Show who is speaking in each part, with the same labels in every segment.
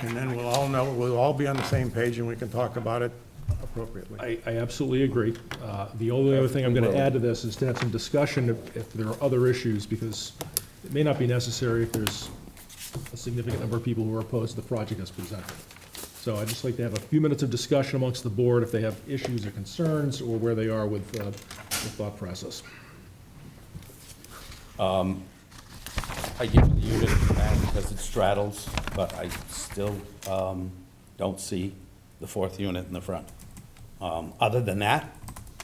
Speaker 1: And then we'll all know, we'll all be on the same page and we can talk about it appropriately.
Speaker 2: I, I absolutely agree. Uh, The only other thing I'm going to add to this is to have some discussion if, if there are other issues, because it may not be necessary if there's a significant number of people who are opposed to the project as presented. So I'd just like to have a few minutes of discussion amongst the board if they have issues or concerns, or where they are with uh, the thought process.
Speaker 3: I give it the unit back because it straddles, but I still um, don't see the fourth unit in the front. Um, Other than that,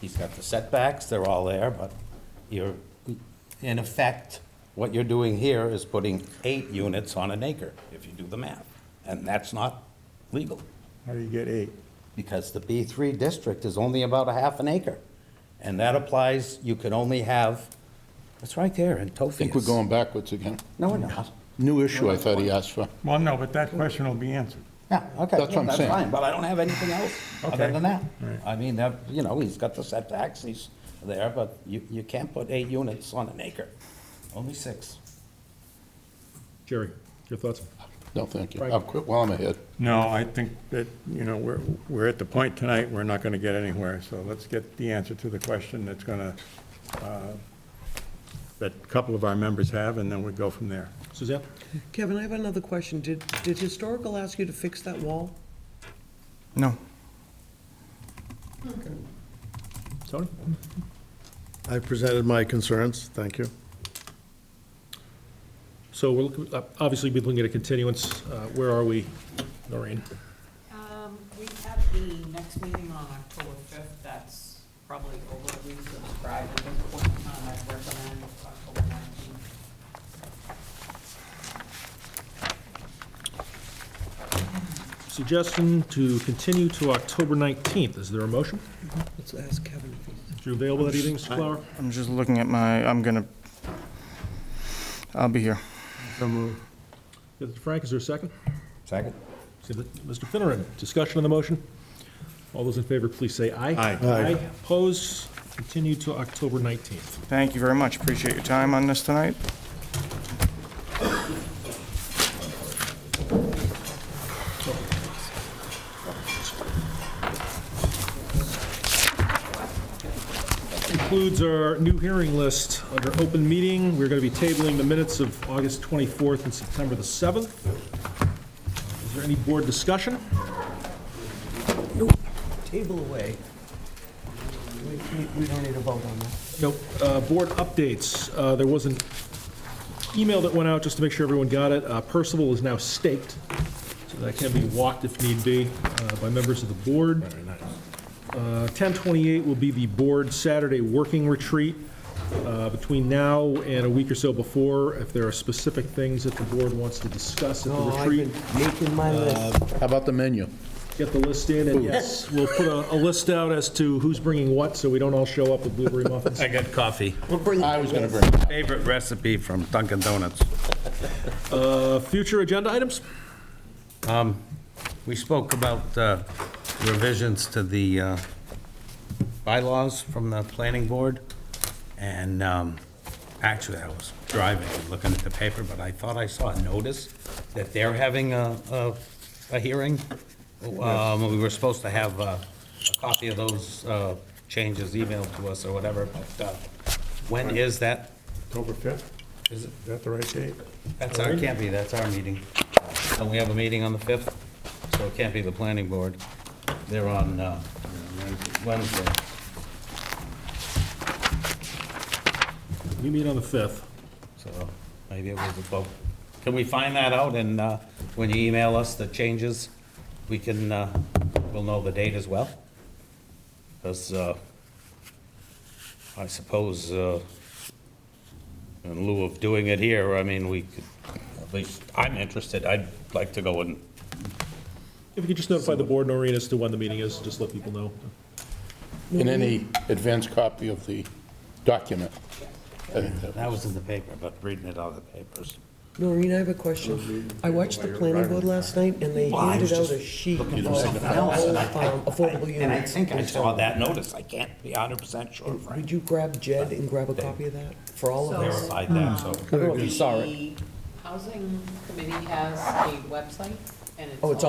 Speaker 3: he's got the setbacks, they're all there, but you're, in effect, what you're doing here is putting eight units on an acre, if you do the math. And that's not legal,
Speaker 1: How do you get eight?
Speaker 3: because the B3 district is only about a half an acre. And that applies, you can only have, it's right there in Topheus.
Speaker 4: I think we're going backwards again.
Speaker 3: No, we're not.
Speaker 4: New issue I thought he asked for.
Speaker 1: Well, no, but that question will be answered.
Speaker 3: Yeah, okay.
Speaker 4: That's what I'm
Speaker 3: That's
Speaker 4: saying.
Speaker 3: fine, but I don't have anything else other
Speaker 1: Okay.
Speaker 3: than that.
Speaker 1: Right.
Speaker 3: I mean, that, you know, he's got the setbacks, he's there, but you, you can't put eight units on an acre, only six.
Speaker 2: Jerry, your thoughts?
Speaker 4: No, thank you.
Speaker 2: Right.
Speaker 4: I'll quit while I'm ahead.
Speaker 1: No, I think that, you know, we're, we're at the point tonight, we're not going to get anywhere, so let's get the answer to the question that's going to, that a couple of our members have, and then we go from there.
Speaker 2: Suzanne?
Speaker 5: Kevin, I have another question. Did, did historical ask you to fix that wall?
Speaker 6: No.
Speaker 2: Tony?
Speaker 7: I presented my concerns, thank you.
Speaker 2: So we're, looking- uh, obviously, we're looking at a continuance. Uh, Where are we, Noreen?
Speaker 8: Um, we have the next meeting on October fifth, that's probably overly subscribed at this point in time, I'd recommend October nineteenth.
Speaker 2: Suggestion to continue to October 19th. Is there a motion?
Speaker 5: Let's ask Kevin.
Speaker 2: Is you available that evening, Mr. Flower?
Speaker 6: I'm just looking at my, I'm gonna, I'll be here.
Speaker 2: Frank, is there a second?
Speaker 3: Second?
Speaker 2: See, but- Mr. Finneran, discussion on the motion? All those in favor, please say aye.
Speaker 1: Aye.
Speaker 2: Aye. Opposed? Continue to October 19th.
Speaker 6: Thank you very much. Appreciate your time on this tonight.
Speaker 2: Concludes our new hearing list under open meeting. We're going to be tabling the minutes of August 24th and September the 7th. Is there any board discussion?
Speaker 5: Table away. We, we- we don't need a vote on that.
Speaker 2: No, uh, board updates. Uh, There was an email that went out, just to make sure everyone got it. Uh, Percival is now staked, so that can be walked if need be uh, by members of the board. Uh, 1028 will be the board Saturday working retreat. Uh, Between now and a week or so before, if there are specific things that the board wants to discuss at the
Speaker 5: No, Oh, I've
Speaker 2: retreat,
Speaker 5: been making my
Speaker 3: Uh,
Speaker 5: list.
Speaker 4: How about the menu?
Speaker 2: get the list in, and yes, we'll put a a list out as to who's bringing what, so we don't all show up with blueberry muffins.
Speaker 3: I got coffee.
Speaker 5: We'll bring,
Speaker 4: I was going to bring,
Speaker 3: Favorite recipe from Dunkin' Donuts.
Speaker 2: Uh, Future agenda items?
Speaker 3: We spoke about uh, revisions to the uh, bylaws from the planning board, and um, actually, I was driving, and looking at the paper, but I thought I saw a notice that they're having a, a- a hearing. Um, We were supposed to have uh, a copy of those uh, changes emailed to us or whatever, but uh, when is that?
Speaker 1: October 5th,
Speaker 3: Is it,
Speaker 1: is that the right date?
Speaker 3: that's our, can't be, that's our meeting. And we have a meeting on the 5th, so it can't be the planning board. They're on uh, Wednesday.
Speaker 2: We meet on the 5th.
Speaker 3: So maybe it was a vote. Can we find that out and uh, when you email us the changes, we can, uh, we'll know the date as well? Because I suppose uh, in lieu of doing it here, I mean, we could, at least I'm interested. I'd like to go and
Speaker 2: If you could just notify the board, Noreen, as to when the meeting is, just let people know.
Speaker 4: in any advance copy of the document. I think that-
Speaker 3: That was in the paper, but reading it out of the papers.
Speaker 5: Noreen, I have a question. I watched the planning board last night, and they
Speaker 3: I was
Speaker 5: handed out
Speaker 3: just
Speaker 5: a sheet of
Speaker 3: looking for
Speaker 5: all,
Speaker 3: something else, and I-
Speaker 5: um, affordable units.
Speaker 3: And I think I saw that notice. I can't be hundred percent sure,
Speaker 5: Would
Speaker 3: Frank.
Speaker 5: you grab Jed and grab a copy of that for all of us? um,
Speaker 3: Verified that, so.
Speaker 5: I don't know if you saw it.
Speaker 8: The housing committee has a website
Speaker 9: and it's
Speaker 8: Oh, it's